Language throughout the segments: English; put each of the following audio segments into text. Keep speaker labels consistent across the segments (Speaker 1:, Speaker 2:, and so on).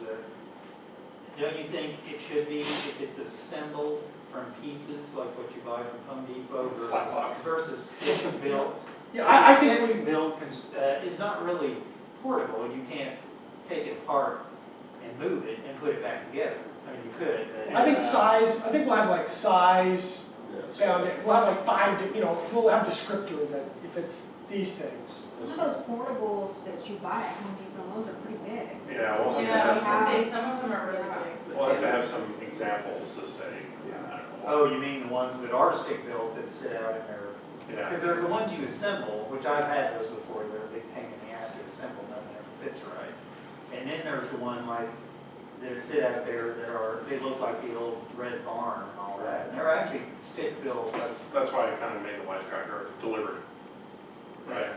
Speaker 1: there.
Speaker 2: Don't you think it should be, if it's assembled from pieces, like what you buy from Home Depot
Speaker 1: Flat box.
Speaker 2: versus, versus stick built?
Speaker 1: Yeah, I, I think we,
Speaker 2: Stick built cons- uh, is not really portable, you can't take it apart and move it and put it back together. I mean, you could, but. uh,
Speaker 3: I think size, I think we'll have like size, found it, we'll have like five, di- you know, we'll have descriptor that if it's these things.
Speaker 4: Some of those portables that you buy at Home Depot, those are pretty big.
Speaker 5: Yeah, we'll have to
Speaker 6: Yeah, I
Speaker 5: have
Speaker 6: was
Speaker 5: some,
Speaker 6: gonna say, some of them are really big.
Speaker 5: we'll have to have some examples to say, I don't know.
Speaker 2: Oh, you mean the ones that are stick built that sit out in there?
Speaker 5: Yeah,
Speaker 2: Because they're the ones you assemble, which I've had those before, they're a big pain in the ass to assemble, nothing ever fits right. And then there's the one like, that sit out there that are, they look like the old red barn and all that, and they're actually stick built,
Speaker 5: that's, that's why I kind of made the wisecracker delivered. Right.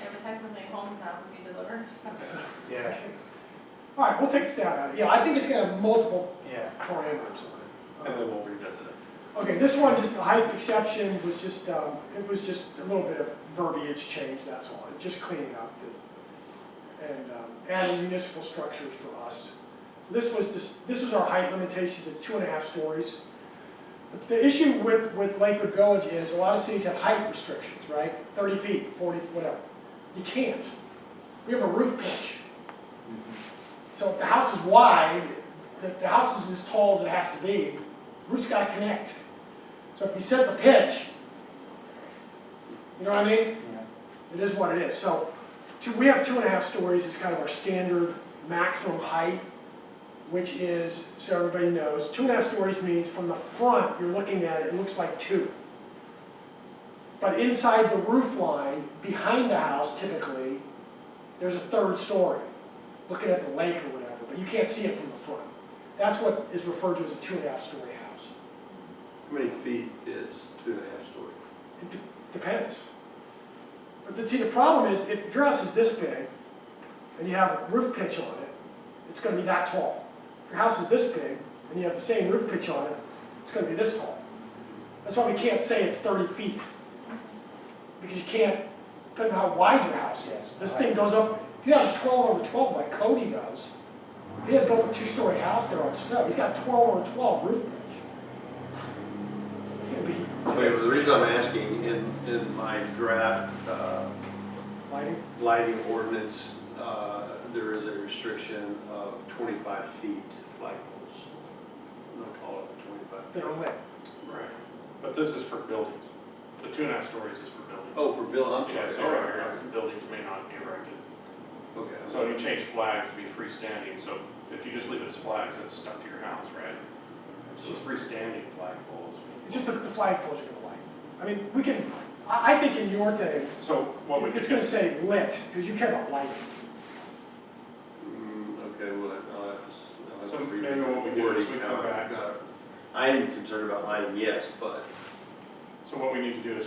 Speaker 6: Yeah, but technically homes now would be delivered.
Speaker 2: yeah,
Speaker 3: All right, we'll take a stab at it. Yeah, I think it's gonna have multiple
Speaker 2: yeah.
Speaker 3: parameters on
Speaker 5: And
Speaker 3: it.
Speaker 5: then we'll revisit it.
Speaker 3: Okay, this one, just the height exception was just, um, it was just a little bit of verbiage change, that's all, just cleaning up the, and, um, adding municipal structures for us. This was, this, this was our height limitations at two and a half stories. The- The issue with, with Lakewood Village is a lot of cities have height restrictions, right? Thirty feet, forty, whatever. You can't. We have a roof pitch. So if the house is wide, the, the house is as tall as it has to be, roof's gotta connect. So if you set the pitch, you know what I mean? It is what it is. So, two, we have two and a half stories is kind of our standard maximum height, which is, so everybody knows, two and a half stories means from the front, you're looking at it, it looks like two. But inside the roof line, behind the house typically, there's a third story, looking at the lake or whatever, but you can't see it from the front. That's what is referred to as a two and a half story house.
Speaker 1: How many feet is two and a half story?
Speaker 3: It de- depends. But the, see, the problem is, if your house is this big, and you have a roof pitch on it, it's gonna be that tall. If your house is this big, and you have the same roof pitch on it, it's gonna be this tall. That's why we can't say it's thirty feet. Because you can't, depending on how wide your house is, this thing goes up, if you have a twelve over twelve like Cody does, if he had built a two-story house there on Snow, he's got a twelve over twelve roof pitch. It'd be
Speaker 1: Okay, well, the reason I'm asking, in, in my draft, uh,
Speaker 3: lighting.
Speaker 1: lighting ordinance, uh, there is a restriction of twenty-five feet flagpoles. No taller than twenty-five.
Speaker 3: that are lit.
Speaker 5: Right. But this is for buildings. The two and a half stories is for buildings.
Speaker 1: Oh, for Bill, I'm
Speaker 5: Yeah,
Speaker 1: sorry.
Speaker 5: so right here, buildings may not be erected.
Speaker 1: Okay.
Speaker 5: So you change flags to be freestanding, so if you just leave it as flags, it's stuck to your house, right? So it's freestanding flagpoles.
Speaker 3: It's just the, the flagpoles are gonna light. I mean, we can, I, I think in your thing,
Speaker 5: So what we could
Speaker 3: it's gonna
Speaker 5: do,
Speaker 3: say lit, because you care about lighting.
Speaker 1: Mm, Okay, well, I'll have to. s- I'll have
Speaker 5: So
Speaker 1: to read
Speaker 5: maybe what we do is we
Speaker 1: wording
Speaker 5: come
Speaker 1: now.
Speaker 5: back.
Speaker 1: Uh, I am concerned about lighting, yes, but
Speaker 5: so what we need to do is